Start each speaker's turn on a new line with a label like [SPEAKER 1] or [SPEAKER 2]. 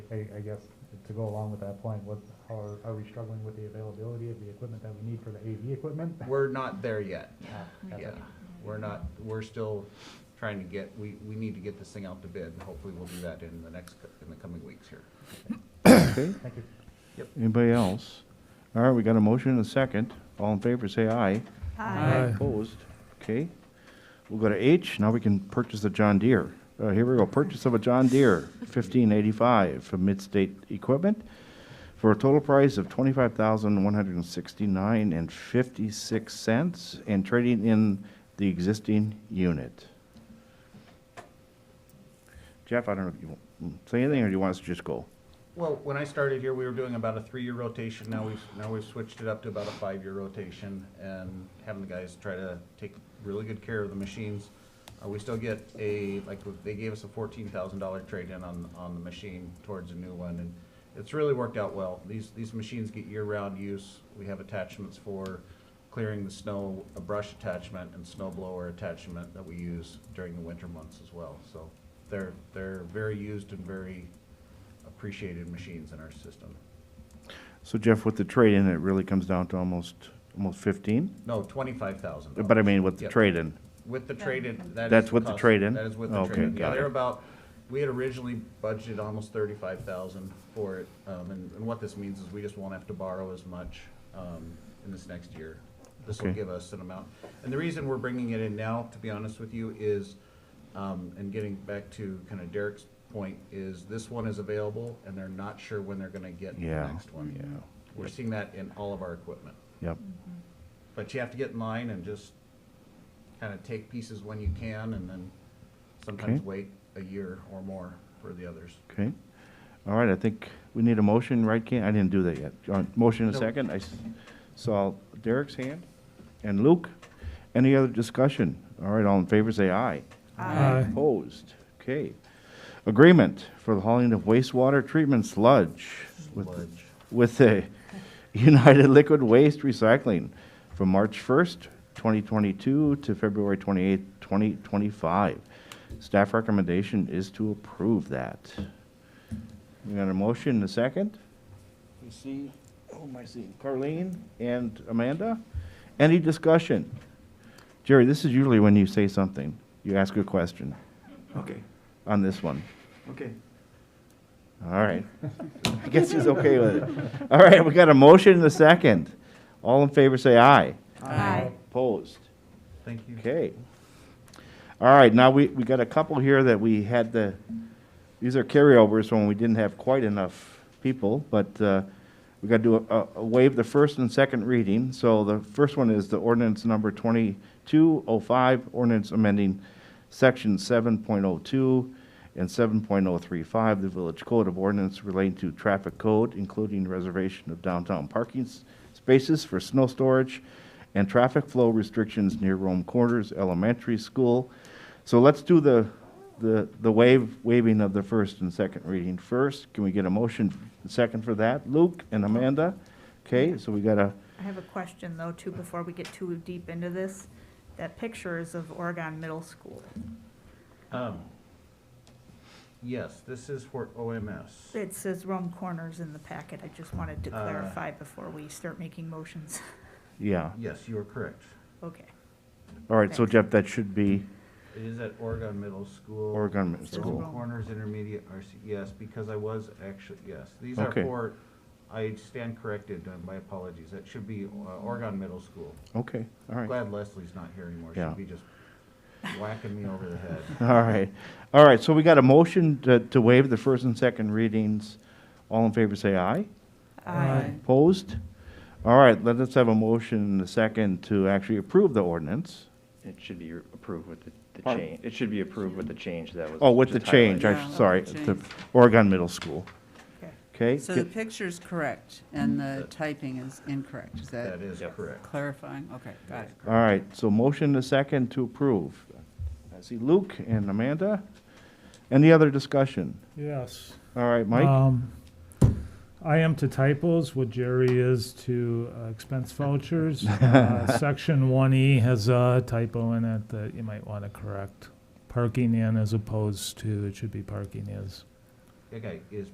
[SPEAKER 1] I, I guess, to go along with that point, what, how are, are we struggling with the availability of the equipment that we need for the AV equipment?
[SPEAKER 2] We're not there yet.
[SPEAKER 1] Yeah, that's
[SPEAKER 2] Yeah,
[SPEAKER 1] it.
[SPEAKER 2] we're not, we're still trying to get, we, we need to get this thing out to bid, and hopefully we'll do that in the next, cou- in the coming weeks here.
[SPEAKER 3] Okay,
[SPEAKER 1] Thank you.
[SPEAKER 3] anybody else? All right, we got a motion and a second. All in favor, say aye.
[SPEAKER 4] Aye.
[SPEAKER 3] Opposed? Okay. We'll go to H, now we can purchase a John Deere. Uh, here we go, purchase of a John Deere fifteen eighty-five from Midstate Equipment for a total price of twenty-five thousand one hundred and sixty-nine and fifty-six cents and trading in the existing unit. Jeff, I don't know if you want mm, say anything or do you want us to just go?
[SPEAKER 2] Well, when I started here, we were doing about a three-year rotation, now we've, now we've switched it up to about a five-year rotation, and having the guys try to take really good care of the machines. Uh, we still get a, like, they gave us a fourteen thousand dollar trade-in on, on the machine towards a new one, and it's really worked out well. These, these machines get year-round use, we have attachments for clearing the snow, a brush attachment and snow blower attachment that we use during the winter months as well, so they're, they're very used and very appreciated machines in our system.
[SPEAKER 3] So Jeff, with the trade-in, it really comes down to almost, almost fifteen?
[SPEAKER 2] No, twenty-five thousand.
[SPEAKER 3] But I mean, with the
[SPEAKER 2] Yep.
[SPEAKER 3] trade-in,
[SPEAKER 2] With the trade-in, that is.
[SPEAKER 3] That's with the
[SPEAKER 2] cost-
[SPEAKER 3] trade-in?
[SPEAKER 2] That is with the
[SPEAKER 3] Okay,
[SPEAKER 2] trade-in. Yeah,
[SPEAKER 3] got
[SPEAKER 2] they're
[SPEAKER 3] it.
[SPEAKER 2] about, we had originally budgeted almost thirty-five thousand for it. Um, and, and what this means is we just won't have to borrow as much, um, in this next year. This will
[SPEAKER 3] Okay.
[SPEAKER 2] give us an amount. And the reason we're bringing it in now, to be honest with you, is, um, and getting back to kind of Derek's point, is this one is available and they're not sure when they're gonna get the
[SPEAKER 3] Yeah,
[SPEAKER 2] next one.
[SPEAKER 3] yeah.
[SPEAKER 2] We're seeing that in all of our equipment.
[SPEAKER 3] yep.
[SPEAKER 2] But you have to get in line and just kind of take pieces when you can and then sometimes
[SPEAKER 3] Okay.
[SPEAKER 2] wait a year or more for the others.
[SPEAKER 3] Okay. All right, I think we need a motion, right, Ken? I didn't do that yet. Uh, Motion and a
[SPEAKER 2] No.
[SPEAKER 3] second. I s- saw Derek's hand and Luke. Any other discussion? All right, all in favor, say aye.
[SPEAKER 4] Aye.
[SPEAKER 3] Opposed? Okay. Agreement for the hauling of wastewater treatment sludge with,
[SPEAKER 2] Sludge.
[SPEAKER 3] with the United Liquid Waste Recycling from March 1st, 2022 to February 28th, 2025. Staff recommendation is to approve that. We got a motion and a second? You see, oh, my seeing? Carleen and Amanda? Any discussion? Jerry, this is usually when you say something, you ask a question
[SPEAKER 5] Okay,
[SPEAKER 3] on this one.
[SPEAKER 5] okay.
[SPEAKER 3] All right. I guess he's okay with it. All right, we got a motion and a second. All in favor, say aye.
[SPEAKER 4] Aye.
[SPEAKER 3] Opposed?
[SPEAKER 2] Thank you.
[SPEAKER 3] Okay. All right, now we, we got a couple here that we had the, these are carryovers when we didn't have quite enough people, but uh, we got to do a- a, waive the first and second reading. So the first one is the ordinance number 2205, ordinance amending section 7.02 and 7.035, of the Village Code of Ordinance relating to traffic code, including reservation of downtown parking s- spaces for snow storage and traffic flow restrictions near Rome Corners Elementary School. So let's do the, the, the wave, waiving of the first and second reading first. Can we get a motion second for that? Luke and Amanda? Okay, so we got a,
[SPEAKER 4] I have a question though, too, before we get too deep into this. That picture is of Oregon Middle School.
[SPEAKER 2] Um, yes, this is for OMS.
[SPEAKER 4] It says Rome Corners in the packet. I just wanted to
[SPEAKER 2] Uh.
[SPEAKER 4] clarify before we start making motions.
[SPEAKER 3] yeah.
[SPEAKER 2] Yes, you are correct.
[SPEAKER 4] Okay.
[SPEAKER 3] All right, so Jeff, that should be
[SPEAKER 2] It is at Oregon Middle School.
[SPEAKER 3] Oregon Middle
[SPEAKER 4] It's
[SPEAKER 2] Circle
[SPEAKER 3] School.
[SPEAKER 4] wrong.
[SPEAKER 2] Corners Intermediate RC, yes, because I was actually, yes, these are
[SPEAKER 3] Okay.
[SPEAKER 2] for, I stand corrected, uh, my apologies, that should be uh, Oregon Middle School.
[SPEAKER 3] Okay, all right.
[SPEAKER 2] Glad Leslie's not here anymore,
[SPEAKER 3] Yeah.
[SPEAKER 2] she'd be just whacking me over the head.
[SPEAKER 3] All right, all right, so we got a motion to, to waive the first and second readings. All in favor, say aye.
[SPEAKER 4] Aye.
[SPEAKER 3] Opposed? All right, let us have a motion and a second to actually approve the ordinance.
[SPEAKER 5] It should be approved with the- the
[SPEAKER 3] Pardon?
[SPEAKER 5] change, it should be approved with the change that was.
[SPEAKER 3] Oh, with the
[SPEAKER 5] just
[SPEAKER 3] change,
[SPEAKER 5] highlighted.
[SPEAKER 3] I,
[SPEAKER 6] Yeah, with
[SPEAKER 3] sorry,
[SPEAKER 6] the
[SPEAKER 3] the
[SPEAKER 6] change.
[SPEAKER 3] Oregon Middle School,
[SPEAKER 4] Okay.
[SPEAKER 3] okay?
[SPEAKER 6] So the picture's correct, and the typing is incorrect. Is that
[SPEAKER 2] That is
[SPEAKER 5] Yep.
[SPEAKER 2] correct.
[SPEAKER 6] clarifying? Okay, got it.
[SPEAKER 3] All right, so motion and a second to approve. I see Luke and Amanda. Any other discussion?
[SPEAKER 7] Yes.
[SPEAKER 3] All right, Mike?
[SPEAKER 7] Um, I am to typos what Jerry is to uh, expense vouchers. Uh, Section one E has a typo in it that you might want to correct. Parking in as opposed to, it should be parking is.
[SPEAKER 2] Okay, is